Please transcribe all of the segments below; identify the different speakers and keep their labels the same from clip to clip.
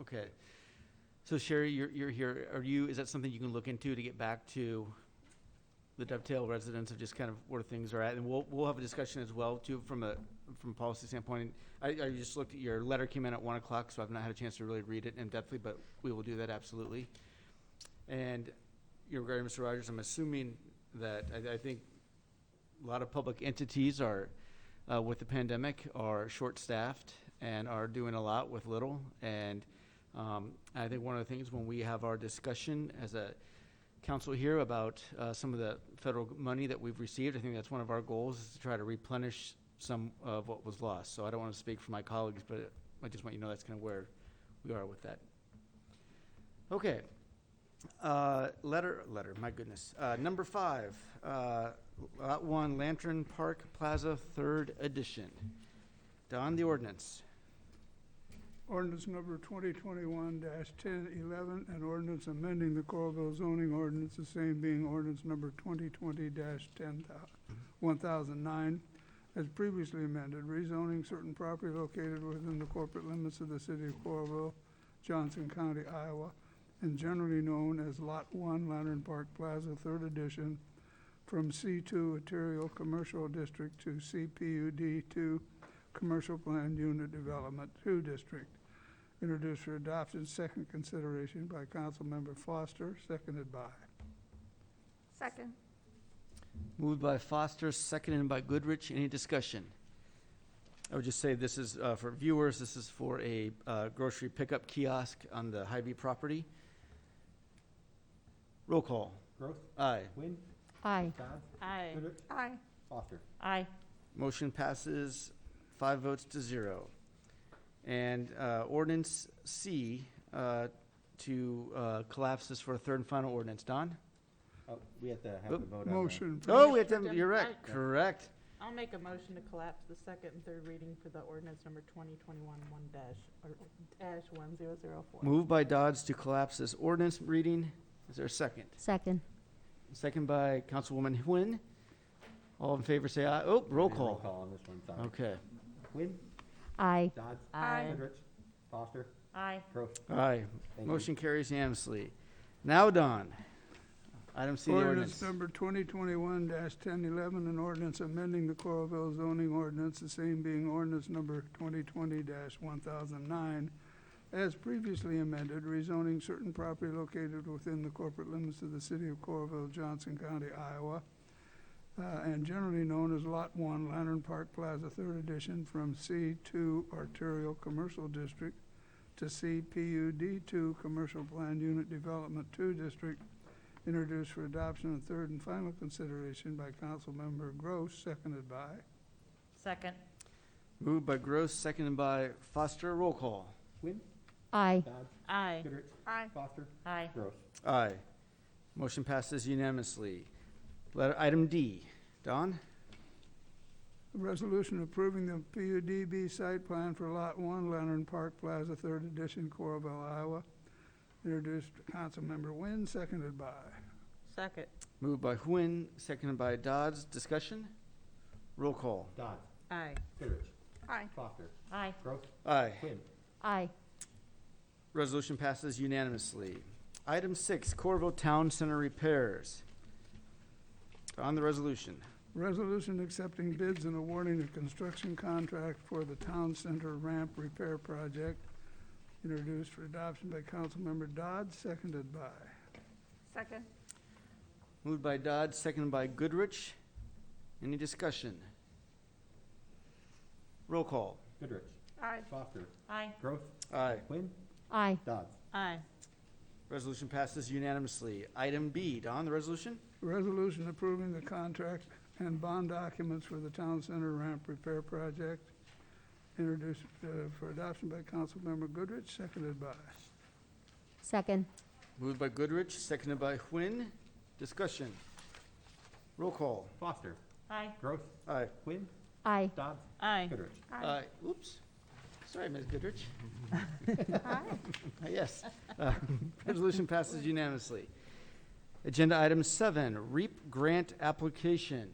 Speaker 1: Okay. So Sherry, you're, you're here, are you, is that something you can look into to get back to the Dovetail residents of just kind of where things are at? And we'll, we'll have a discussion as well too, from a, from a policy standpoint. I, I just looked at, your letter came in at one o'clock, so I've not had a chance to really read it in depthly, but we will do that absolutely. And you're regarding Mr. Rogers, I'm assuming that, I, I think a lot of public entities are, uh, with the pandemic are short-staffed and are doing a lot with little. And um, I think one of the things when we have our discussion as a council here about uh, some of the federal money that we've received, I think that's one of our goals is to try to replenish some of what was lost. So I don't want to speak for my colleagues, but I just want you to know that's kind of where we are with that. Okay. Uh, letter, letter, my goodness. Uh, number five, uh, Lot One Lantern Park Plaza Third Edition. Don, the ordinance.
Speaker 2: Ordinance number twenty twenty-one ten eleven, an ordinance amending the Coralville zoning ordinance, the same being ordinance number twenty twenty dash ten one thousand nine, as previously amended, rezoning certain property located within the corporate limits of the city of Coralville, Johnson County, Iowa, and generally known as Lot One Lantern Park Plaza Third Edition, from C two Arterial Commercial District to CPUD two Commercial Plan Unit Development Two District. Introduced for adoption, second consideration by Councilmember Foster, seconded by.
Speaker 3: Second.
Speaker 1: Moved by Foster, seconded by Goodrich. Any discussion? I would just say this is, uh, for viewers, this is for a, uh, grocery pickup kiosk on the Hy-Vee property. Roll call.
Speaker 4: Gross,
Speaker 1: Aye.
Speaker 4: Wynn,
Speaker 5: Aye.
Speaker 4: Dodd,
Speaker 5: Aye.
Speaker 4: Goodrich,
Speaker 3: Aye.
Speaker 4: Foster.
Speaker 5: Aye.
Speaker 1: Motion passes five votes to zero. And uh, ordinance C uh, to uh, collapse this for a third and final ordinance. Don?
Speaker 4: Oh, we have to have
Speaker 1: Oh,
Speaker 4: a vote on that.
Speaker 2: Motion.
Speaker 1: Oh, we
Speaker 2: please.
Speaker 1: have to, you're right,
Speaker 4: Yeah.
Speaker 1: correct.
Speaker 5: I'll make a motion to collapse the second and third reading for the ordinance number 2021 one dash, or dash 1004.
Speaker 1: Moved by Dodds to collapse this ordinance reading. Is there a second?
Speaker 6: Second.
Speaker 1: Second by Councilwoman Nguyen. All in favor, say aye. Oh, roll
Speaker 4: We did a Roll
Speaker 1: call.
Speaker 4: call on this one, sorry.
Speaker 1: Okay.
Speaker 4: Wynn,
Speaker 6: Aye.
Speaker 4: Dodds,
Speaker 3: Aye.
Speaker 4: Goodrich, Foster,
Speaker 5: Aye.
Speaker 4: Gross.
Speaker 1: Aye.
Speaker 4: Thank you.
Speaker 1: Motion carries unanimously. Now, Don. Item C, the
Speaker 2: Ordinance
Speaker 1: ordinance.
Speaker 2: number twenty twenty-one ten eleven, an ordinance amending the Coralville zoning ordinance, the same being ordinance number twenty twenty one thousand nine, as previously amended, rezoning certain property located within the corporate limits of the city of Coralville, Johnson County, Iowa, uh, and generally known as Lot One, Lantern Park Plaza, Third Edition, from C two Arterial Commercial District to CPUD two Commercial Plan Unit Development Two District, introduced for adoption and third and final consideration by Councilmember Gross, seconded by.
Speaker 5: Second.
Speaker 1: Moved by Gross, seconded by Foster. Roll call.
Speaker 4: Wynn,
Speaker 6: Aye.
Speaker 4: Dodds,
Speaker 5: Aye.
Speaker 4: Goodrich,
Speaker 3: Aye.
Speaker 4: Foster,
Speaker 5: Aye.
Speaker 4: Gross.
Speaker 1: Aye. Motion passes unanimously. Letter, item D. Don?
Speaker 2: A Resolution approving the PUDB site plan for Lot One, Lantern Park Plaza, Third Edition, Coralville, Iowa, introduced Councilmember Nguyen, seconded by.
Speaker 5: Second.
Speaker 1: Moved by Huen, seconded by Dodds. Discussion? Roll call.
Speaker 4: Dodds,
Speaker 5: Aye.
Speaker 4: Goodrich,
Speaker 3: Aye.
Speaker 4: Foster,
Speaker 5: Aye.
Speaker 4: Gross,
Speaker 1: Aye.
Speaker 4: Wynn,
Speaker 6: Aye.
Speaker 1: Resolution passes unanimously. Item six, Corvo Town Center repairs. On the resolution.
Speaker 2: Resolution accepting bids and awarding a construction contract for the Town Center Ramp Repair Project, introduced for adoption by Councilmember Dodd, seconded by.
Speaker 3: Second.
Speaker 1: Moved by Dodds, seconded by Goodrich. Any discussion? Roll call.
Speaker 4: Goodrich,
Speaker 3: Aye.
Speaker 4: Foster,
Speaker 5: Aye.
Speaker 4: Gross,
Speaker 1: Aye.
Speaker 4: Wynn,
Speaker 6: Aye.
Speaker 4: Dodds.
Speaker 5: Aye.
Speaker 1: Resolution passes unanimously. Item B, Don, the resolution?
Speaker 2: Resolution approving the contract and bond documents for the Town Center Ramp Repair Project, introduced uh, for adoption by Councilmember Goodrich, seconded by.
Speaker 6: Second.
Speaker 1: Moved by Goodrich, seconded by Huen. Discussion. Roll call.
Speaker 4: Foster,
Speaker 5: Aye.
Speaker 4: Gross,
Speaker 1: Aye.
Speaker 4: Wynn,
Speaker 6: Aye.
Speaker 4: Dodds,
Speaker 5: Aye.
Speaker 4: Goodrich.
Speaker 3: Aye.
Speaker 1: Uh, Oops. Sorry, Ms. Goodrich.
Speaker 3: Aye.
Speaker 1: Uh, Yes. Uh, Resolution passes unanimously. Agenda item seven, REAP grant application.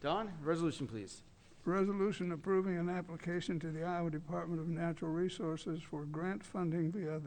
Speaker 1: Don, resolution, please.
Speaker 2: resolution approving an application to the Iowa Department of Natural Resources for grant funding via the